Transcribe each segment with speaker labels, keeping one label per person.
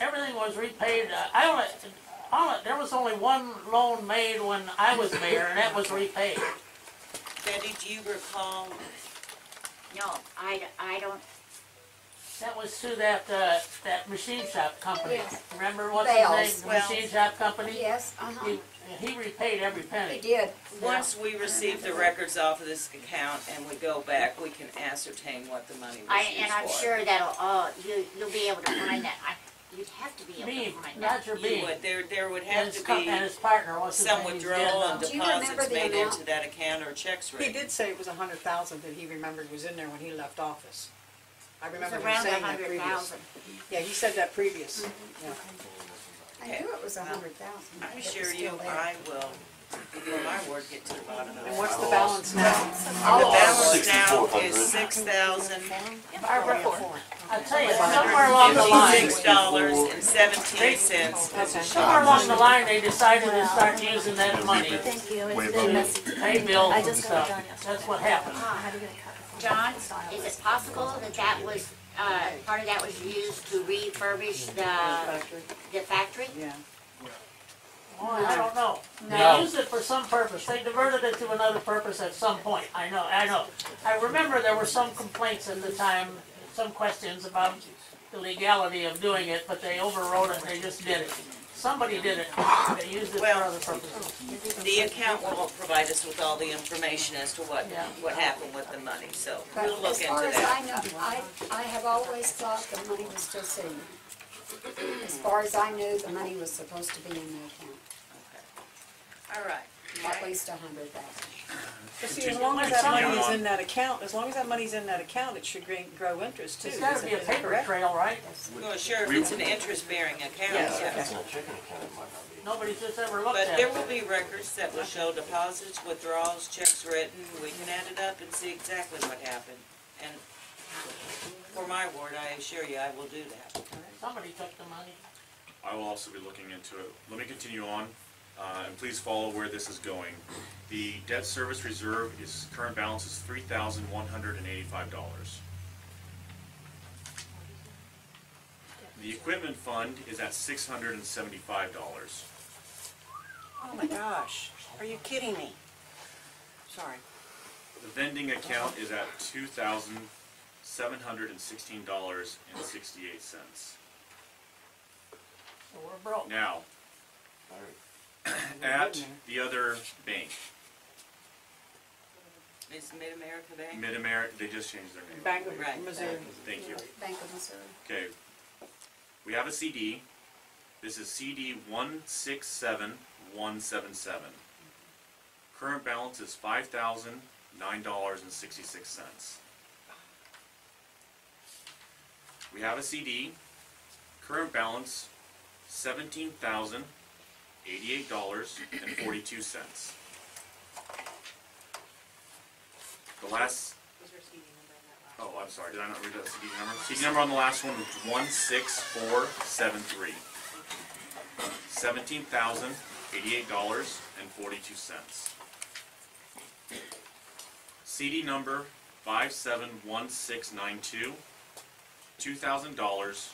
Speaker 1: everything was repaid, Uh, I only, all, there was only one loan made when I was mayor, and that was repaid.
Speaker 2: Betty, do you recall,
Speaker 3: No, I, d- I don't,
Speaker 1: That was through that, uh, that machine shop company.
Speaker 4: Yes.
Speaker 1: Remember what's his
Speaker 4: Bales.
Speaker 1: name, the
Speaker 2: Well-
Speaker 1: machine shop company?
Speaker 4: Yes, uh-huh,
Speaker 1: He, he repaid every
Speaker 4: he
Speaker 1: penny.
Speaker 4: did.
Speaker 2: once we receive the records off of this account and we go back, we can ascertain what the money
Speaker 3: I,
Speaker 2: was used for?
Speaker 3: and I'm sure that'll, all you, you'll be able to find that, I, you'd have to be able to
Speaker 1: Beam,
Speaker 3: find that.
Speaker 1: Roger
Speaker 2: You
Speaker 1: Beam,
Speaker 2: would, there, there would
Speaker 1: and
Speaker 2: have
Speaker 1: his,
Speaker 2: to
Speaker 1: co- and
Speaker 2: be
Speaker 1: his partner, what's his name?
Speaker 2: some
Speaker 1: he's
Speaker 2: withdrawal
Speaker 1: dead
Speaker 2: and
Speaker 1: now.
Speaker 4: Do you remember
Speaker 2: deposits
Speaker 4: the
Speaker 2: made
Speaker 4: amount?
Speaker 2: into that account or checks
Speaker 5: He
Speaker 2: written.
Speaker 5: did say it was a hundred thousand that he remembered was in there when he left office. I
Speaker 3: It's
Speaker 5: remember him
Speaker 3: around
Speaker 5: saying
Speaker 3: a
Speaker 5: that
Speaker 3: hundred
Speaker 5: previous.
Speaker 3: thousand.
Speaker 5: Yeah, he said that previous.
Speaker 4: I knew it was a hundred thousand.
Speaker 2: I assure you, I will, before my word, get to the bottom of
Speaker 5: And
Speaker 2: it.
Speaker 5: what's the balance now?
Speaker 2: The balance now
Speaker 6: Oh, Sixty-four hundred.
Speaker 2: is six thousand
Speaker 5: Barbara. Four.
Speaker 1: I'll tell you, somewhere along the line,
Speaker 2: fifty-six dollars and seventeen cents.
Speaker 5: Okay.
Speaker 1: somewhere along the line, they decided to start using that money to
Speaker 7: Thank you,
Speaker 6: Way
Speaker 7: it's
Speaker 6: above.
Speaker 7: been messy.
Speaker 1: pay bills
Speaker 7: I
Speaker 1: and
Speaker 7: just got it
Speaker 1: stuff.
Speaker 7: done yesterday.
Speaker 1: That's what happened.
Speaker 7: How do you get a copy? from-
Speaker 3: John, is it possible that that was, uh, part of that was used to refurbish the,
Speaker 5: Factory,
Speaker 3: the factory?
Speaker 5: yeah.
Speaker 1: Boy, I don't know.
Speaker 8: No.
Speaker 1: They used it for some purpose. They diverted it to another purpose at some point. I know, I know. I remember there were some complaints at the time, some questions about the legality of doing it, but they overrode it, they just did it. Somebody did it. They used it for
Speaker 2: Well-
Speaker 1: other purposes.
Speaker 2: The account won't provide us with all the information as to what,
Speaker 1: Yeah.
Speaker 2: what happened with the money, so
Speaker 4: But
Speaker 2: we'll look
Speaker 4: as far
Speaker 2: into
Speaker 4: as
Speaker 2: that.
Speaker 4: I know, I, I have always thought the money was still sitting. As far as I knew, the money was supposed to be in the
Speaker 2: All right.
Speaker 4: account, at least a hundred thousand.
Speaker 5: But see, as long as that money is in that account, as long as that money's in that account, it should gain- grow interest too.
Speaker 1: It's gotta
Speaker 5: isn't
Speaker 1: be a
Speaker 5: it?
Speaker 1: paper
Speaker 5: Correct?
Speaker 1: trail, right?
Speaker 2: Well, sure, if it's an interest-bearing account,
Speaker 5: Yes,
Speaker 2: yes.
Speaker 5: okay.
Speaker 1: Nobody's just ever looked
Speaker 2: But
Speaker 1: at
Speaker 2: there
Speaker 1: it.
Speaker 2: will be records that will show deposits, withdrawals, checks written, we can add it up and see exactly what happened. And for my word, I assure you, I will do that.
Speaker 1: Somebody took the money.
Speaker 9: I will also be looking into it. Let me continue on, uh, and please follow where this is going. The debt service reserve is, current balance is three thousand one hundred and eighty-five dollars. The equipment fund is at six hundred and seventy-five dollars.
Speaker 5: Oh my gosh, are you kidding me? Sorry.
Speaker 9: The vending account is at two thousand seven hundred and sixteen dollars and sixty-eight cents.
Speaker 1: So we're broke.
Speaker 9: Now, at the other bank,
Speaker 2: Is Mid-America Bank?
Speaker 9: Mid-America, they just changed their name.
Speaker 5: Bank
Speaker 2: Right.
Speaker 5: of Missouri.
Speaker 9: Thank you.
Speaker 4: Bank of Missouri.
Speaker 9: Okay, we have a CD. This is CD one six seven one seven seven. Current balance is five thousand nine dollars and sixty-six cents. We have a CD. Current balance seventeen thousand eighty-eight dollars and forty-two cents. The last Oh, I'm sorry, did I not read that CD number? CD number on the last one was one six four seven three. Seventeen thousand eighty-eight dollars and forty-two cents. CD number five seven one six nine two, two thousand dollars,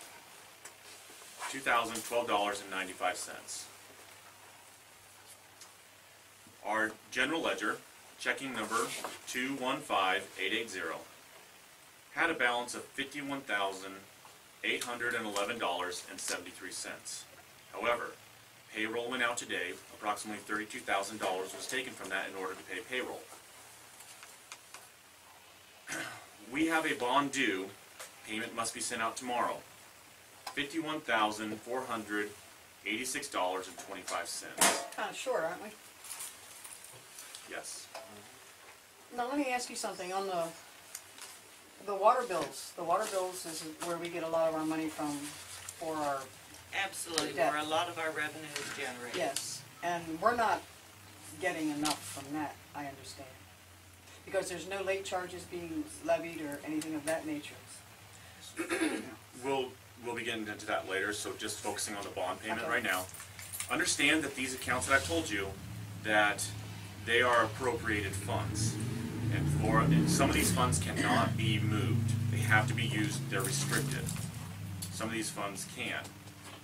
Speaker 9: two thousand twelve dollars and ninety-five cents. Our general ledger, checking number two one five eight eight zero had a balance of fifty-one thousand eight hundred and eleven dollars and seventy-three cents. However, payroll went out today, approximately thirty-two thousand dollars was taken from that in order to pay payroll. We have a bond due, payment must be sent out tomorrow, fifty-one thousand four hundred eighty-six dollars and twenty-five cents,
Speaker 5: Kinda short, aren't we?
Speaker 9: yes.
Speaker 5: Now, let me ask you something on the, the water bills. The water bills is where we get a lot of our money from for our,
Speaker 2: Absolutely, where a lot of our revenue is generated.
Speaker 5: yes. And we're not getting enough from that, I understand. Because there's no late charges being levied or anything of that nature.
Speaker 9: We'll, we'll be getting into that later, so just focusing on the bond payment right now. Understand that these accounts that I've told you, that they are appropriated funds. And for, and some of these funds cannot be moved, they have to be used, they're restricted. Some of these funds can.